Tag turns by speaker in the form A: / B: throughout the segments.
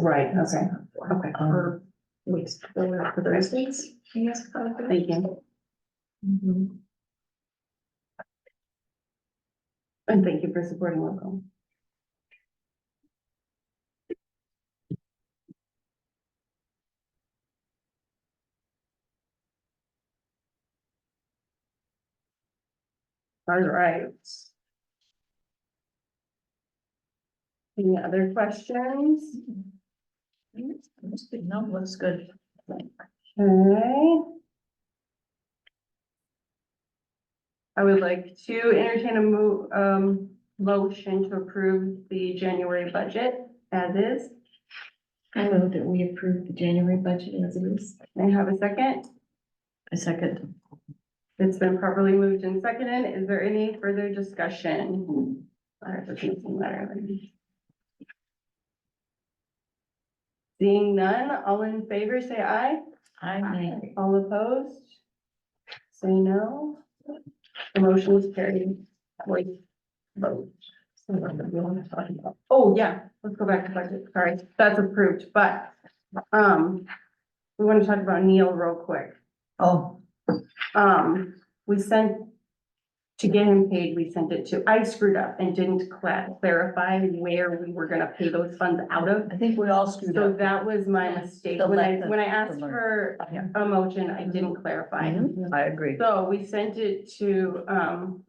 A: Right, okay,
B: Okay.
A: Um,
B: For weeks, for the rest weeks, yes. probably.
A: thank you. Mm-hmm.
B: Mhm.
A: And thank you for supporting local. All right. Any other questions?
B: No, looks good.
A: Okay. I would like to entertain a mo- um, motion to approve the January budget as is.
B: I move that we approve the January budget as it is.
A: May I have a second?
B: A second.
A: It's been properly moved and seconded. Is there any further discussion? All right, let's make some letter. Seeing none, all in favor, say aye.
B: I may.
A: All opposed? Say no. The motion is carried. Wait. Vote. Oh, yeah, let's go back to budget. Sorry, that's approved, but, um, we want to talk about Neil real quick.
B: Oh.
A: Um, we sent, to get him paid, we sent it to, I screwed up and didn't cla- clarify where we were gonna pay those funds out of.
B: I think we all screwed
A: So that was my
B: Yeah,
A: mistake.
B: the
A: When I,
B: lack of-
A: when I asked
B: the learn-
A: for
B: Yeah.
A: a motion, I didn't clarify.
B: I agree.
A: So we sent it to, um,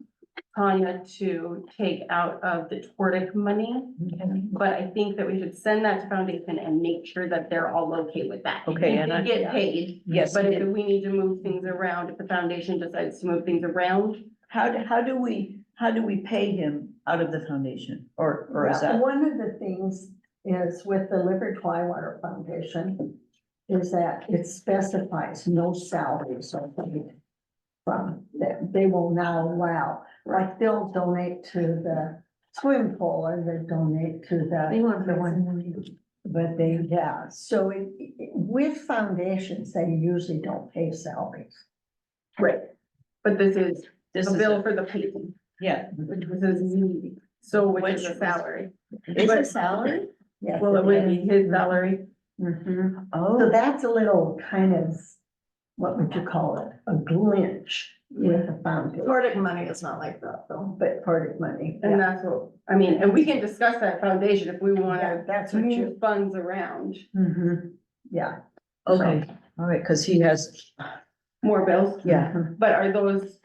A: Tanya to take out of the Tortic money. But I think that we should send that to Foundation and make sure that they're all okay with that.
B: Okay,
A: It
B: and
A: can
B: I-
A: get paid,
B: Yes,
A: but if we need to move things around, if the foundation decides to move things around,
C: How, do- how do we, how do we pay him out of the foundation or, or is
D: Well,
C: that?
D: One of the things is with the Liberty Water Foundation is that it specifies no salaries are paid from, that they will not allow, like they'll donate to the swim pool or they donate to the,
B: They want
D: the
B: for
D: one,
B: one.
D: but they, yeah, so it- it- with foundations, they usually don't pay salaries.
A: but this is
C: This
A: a
C: is,
A: bill
C: a-
A: for the painting,
C: yeah,
A: which was his, so which is a
C: Which-
A: salary.
C: It's a
B: salary?
D: Yeah.
A: Well, it would be his salary.
D: Mhm. So
B: Oh.
D: that's a little kind of, what would you call it, a glitch with the foundation.
B: Nordic money is not like that though.
D: But part of money.
A: And that's what, I mean, and we can discuss that foundation if we wanna
D: Yeah, That's what you.
A: move funds around.
D: Mhm. Yeah.
C: okay, all right, because he has,
A: More bills,
C: yeah,
A: but are those,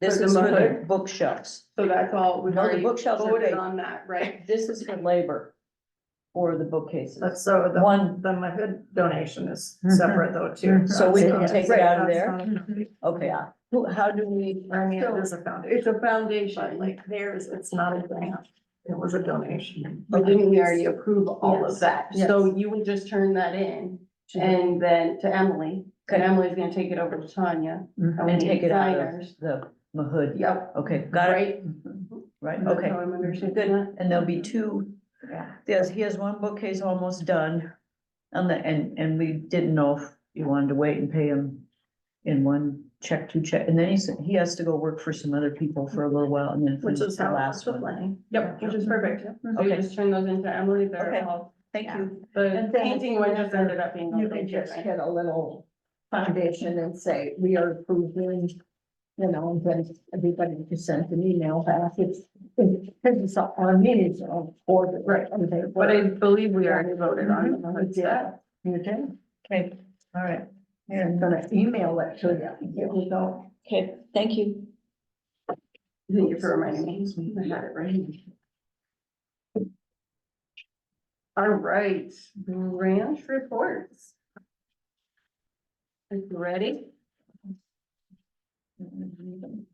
C: this
A: For the
C: is for
A: mother?
C: the bookshelves.
A: so that's all, we've
C: No, the
A: already
C: bookshelves are
A: voted
C: paid.
A: on that, right?
C: This is for labor for the bookcases.
B: Uh, So the
C: One,
B: the mother donation is
D: Mm-hmm.
B: separate though too.
C: so we can
D: Yeah.
C: take it out of there,
D: Mm-hmm.
C: okay. Who, how do we,
B: I mean, it is a
A: It's
B: foundation,
A: a
B: but
A: foundation, like,
B: like theirs, it's not a grant. It was a donation.
A: but didn't we already approve all of
D: Yes, Mhm.
A: that? So you would just turn that in and then to Emily, and
C: Okay.
A: Emily's gonna take it over to Tanya.
D: Mhm.
A: we
C: and
A: need
C: take it out of
A: signers.
C: the Mahood?
A: Yep,
C: Okay, got it, Mm-hmm.
A: right?
C: right,
A: That's
C: okay.
A: how I'm understanding
C: Good,
A: that.
C: and there'll be two, yes, he has one bookcase almost done. And the, and, and we didn't know if you wanted to wait and pay him in one check, two check, and then he said, he has to go work for some other people for a little while and then.
B: Which
C: finish
B: is
C: the
B: how it
C: last
B: was with
C: one.
B: Lenny.
A: Yep, which is perfect. So you
C: Okay.
A: just turn those into Emily,
C: Okay.
A: they're all,
C: Thank you.
A: the
D: And then
A: painting one just ended up being.
D: You
A: all
D: can
A: painted,
D: just
A: right?
D: hit a little foundation and say, we are approving, you know, and then everybody can send an email back. It's, because it's all, our meetings are all ordered.
A: Right.
D: and they
A: But I
D: were-
A: believe we already voted on
D: Mhm,
A: it.
D: Yeah, you did.
C: Okay, all right,
D: Yeah, I'm gonna email it to you. Here we go.
C: okay, thank you.
A: Thank you for reminding me. I had it right. All right, branch reports. Is ready?
C: Hmm.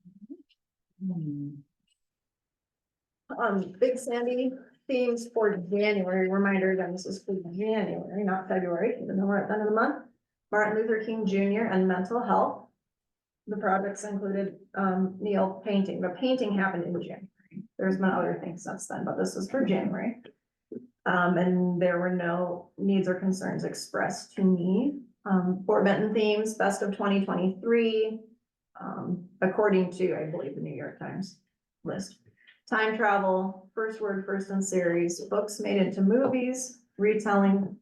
B: Um, Big Sandy themes for January, reminder again, this is for January, not February, even though we're at the end of the month. Martin Luther King Junior and mental health. The projects included, um, Neil painting, the painting happened in January. There's been other things since then, but this is for January. Um, and there were no needs or concerns expressed to me. Um, Fort Benton themes, best of twenty twenty-three. Um, according to, I believe, the New York Times list time travel, first word, first in series, books made into movies, retelling